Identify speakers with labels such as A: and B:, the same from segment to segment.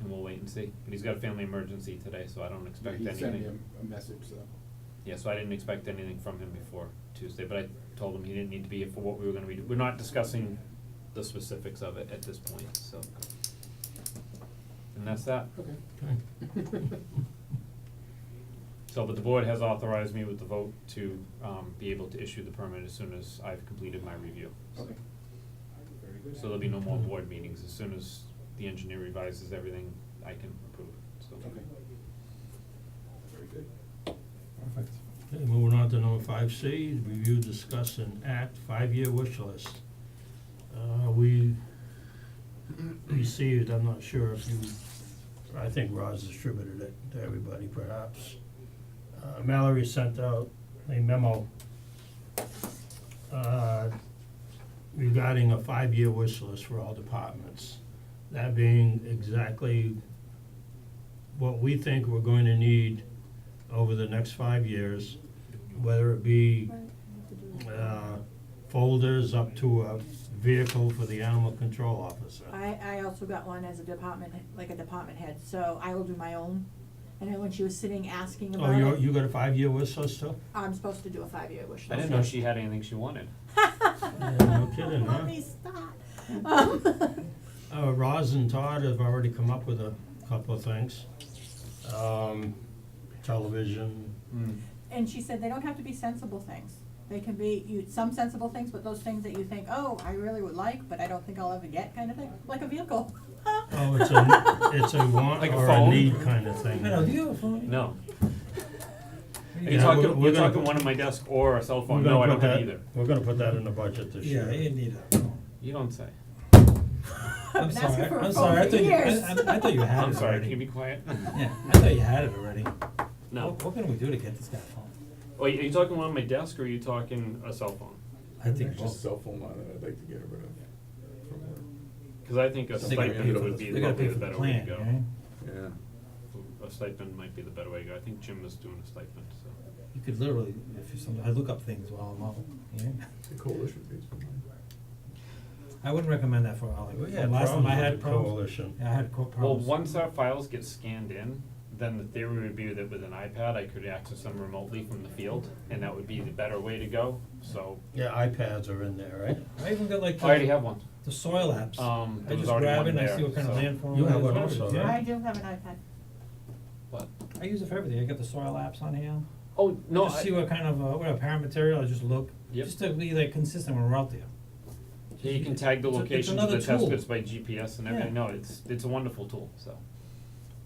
A: and we'll wait and see. But he's got a family emergency today, so I don't expect anything.
B: He sent me a, a message, so.
A: Yeah, so I didn't expect anything from him before Tuesday, but I told him he didn't need to be here for what we were gonna be, we're not discussing the specifics of it at this point, so. And that's that.
B: Okay.
A: So, but the board has authorized me with the vote to, um, be able to issue the permit as soon as I've completed my review. So-
B: Okay. Very good.
A: So there'll be no more board meetings, as soon as the engineer revises everything, I can approve, so.
B: Okay. Very good.
C: Perfect.
D: Okay, moving on to number five C, review, discuss, and act, five-year wish list. Uh, we received, I'm not sure if you, I think Roz distributed it to everybody perhaps. Uh, Mallory sent out a memo, uh, regarding a five-year wish list for all departments. That being exactly what we think we're going to need over the next five years, whether it be uh folders up to a vehicle for the animal control officer.
E: I, I also got one as a department, like a department head, so I will do my own. And then when she was sitting asking
D: Oh,
E: about
D: you
E: it,
D: you got a five-year wish list too?
E: I'm supposed to do a five-year wish list.
A: I didn't know she had anything she wanted.
D: Yeah, no kidding, huh?
E: Let me stop. Um,
D: Uh, Roz and Todd have already come up with a couple of things. Um, television,
E: And she said they don't have to be sensible things. They can be, you, some sensible things, but those things that you think, oh, I really would like, but I don't think I'll ever get kind of thing, like a vehicle.
D: oh, it's a, it's a want
A: Like a
D: or a
A: phone?
D: need kind of thing.
C: Hello, do you have a phone?
A: No,
C: Yeah,
A: you're
D: Yeah,
A: talking,
D: we're- we're
A: you're
D: gonna
A: talking
D: put-
A: one on my desk or a cell
D: We're
A: phone,
D: gonna
A: no, I
D: put
A: don't have
D: that-
A: either.
D: We're gonna put that in the budget this year.
C: Yeah, you need a phone.
A: You don't say.
C: I'm
E: Been asking
C: sorry,
E: for a
C: I'm
E: phone
C: sorry, I
E: for
C: thought you,
E: years.
C: I, I- I thought you had it already.
A: I'm sorry, can you be quiet?
C: Yeah, I thought you had it already.
A: No.
C: What, what can we do to get this guy a phone?
A: Oh, are you talking one on my desk or are you talking a cell phone?
C: I think
B: Just
C: both.
B: cell phone line that I'd like to get rid of. from work.
A: Cause I think a
C: They gotta pay
A: stipend
C: for
A: would
C: the-
A: be
C: they gotta
A: probably
C: pay
A: the
C: for the
A: better way to
C: plan,
A: go.
C: right?
B: Yeah.
A: A stipend might be the better way to go, I think Jim is doing a stipend, so.
C: You could literally, if you, some- I look up things while I'm out, yeah.
B: The coalition pays for mine.
C: I wouldn't recommend that for Hollywood.
D: We had
C: Last time I
D: problems
C: had
D: with the
C: problems.
D: coalition.
C: Yeah, I had co- problems.
A: Well, once our files get scanned in, then the theory would be that with an iPad, I could access them remotely from the field, and that would be the better way to go, so.
D: Yeah, iPads are in there, right?
C: I even got like
A: I already
C: the,
A: have one,
C: the soil apps.
A: Um,
C: I
A: there was
C: just
A: already
C: grab
A: one
C: it and I
A: there,
C: see what kind of
A: so-
C: landform
D: You
C: it
D: have
C: is,
D: one
C: whatever it
D: also, right?
C: is, yeah.
E: I do have an iPad.
A: but,
C: I use it for everything. I got the soil apps on hand.
A: oh, no,
C: Just
A: I-
C: see what kind of, uh, what apparent material, I just look,
A: Yep.
C: just to be like consistent when we're out there.
A: yeah, you can tag the
C: It's a- it's
A: locations of
C: another
A: the test
C: tool.
A: pits by GPS and everything,
C: Yeah.
A: no, it's, it's a wonderful tool, so.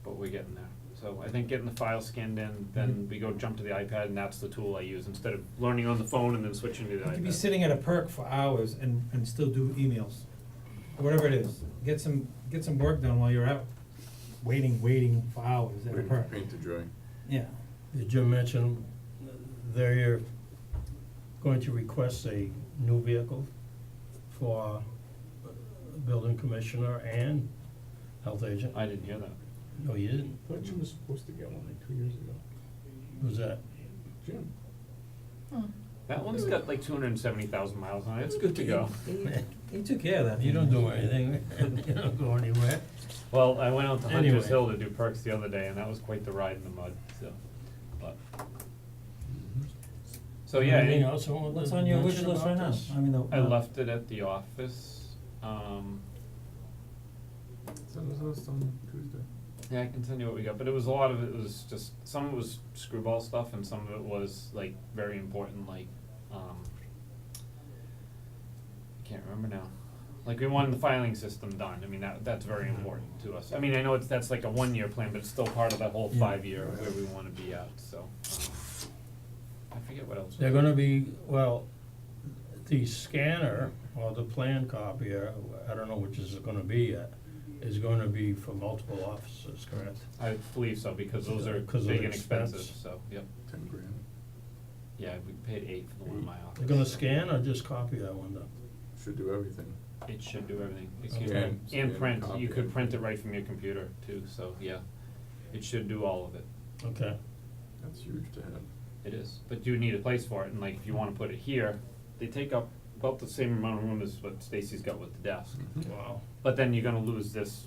A: But we're getting there, so I think getting the file scanned in,
C: Mm-hmm.
A: then we go jump to the iPad, and that's the tool I use, instead of learning on the phone and then switching to the
C: You could be
A: iPad.
C: sitting at a perk for hours and, and still do emails, or whatever it is. Get some, get some work done while you're out, waiting, waiting for hours at a perk.
F: to dry.
C: Yeah.
D: Did Jim mention they're going to request a new vehicle for building commissioner and health agent?
A: I didn't hear that.
D: No, you didn't,
B: I thought Jim was supposed to get one like two years ago.
D: who's that?
B: Jim.
E: Hmm.
A: That one's got like two hundred and seventy thousand miles on it, it's good to go.
C: He took care of that.
D: You don't do anything, you don't go anywhere.
A: Well, I went out to Hunter's
D: Anyway.
A: Hill to do perks the other day, and that was quite the ride in the mud, so, but.
B: Mm-hmm.
A: So, yeah,
D: Mm-hmm. Anything
A: any-
D: else you want to
C: What's on your wish
D: mention
C: list right
D: about
C: now?
D: this?
C: I mean, the. uh,
A: I left it at the office, um,
B: Send us a list on Tuesday.
A: yeah, I can send you what we got, but it was, a lot of it was just, some of it was screwball stuff, and some of it was like very important, like, um, I can't remember now. Like, we wanted the filing system done, I mean, that, that's very
D: Mm-hmm.
A: important to us, I mean, I know it's, that's like a one-year plan, but it's still part of that whole
C: Yeah.
A: five-year where we wanna be at, so, um, I forget what else.
D: They're gonna be, well, the scanner or the plan copier, I don't know which is it gonna be yet, is gonna be for multiple offices, correct?
A: I believe so, because those are
D: Because of
A: big
D: the
A: and expensive,
D: expense.
A: so, yep,
B: Ten grand.
A: yeah, we paid eight for the one in my office.
D: They're gonna
A: so
D: scan or just copy, I wonder?
F: Should do everything.
A: It should do everything, it
D: Okay.
A: can,
F: And-
A: and
F: and
A: print,
F: copy
A: you could
F: it.
A: print it right from your computer too, so, yeah, it should do all of it,
D: Okay,
F: That's huge to have.
A: it is, but you need a place for it, and like, if you wanna put it here, they take up
F: Mm-hmm.
A: about the same amount of room as what Stacy's got with the desk,
D: wow.
A: but then you're gonna lose this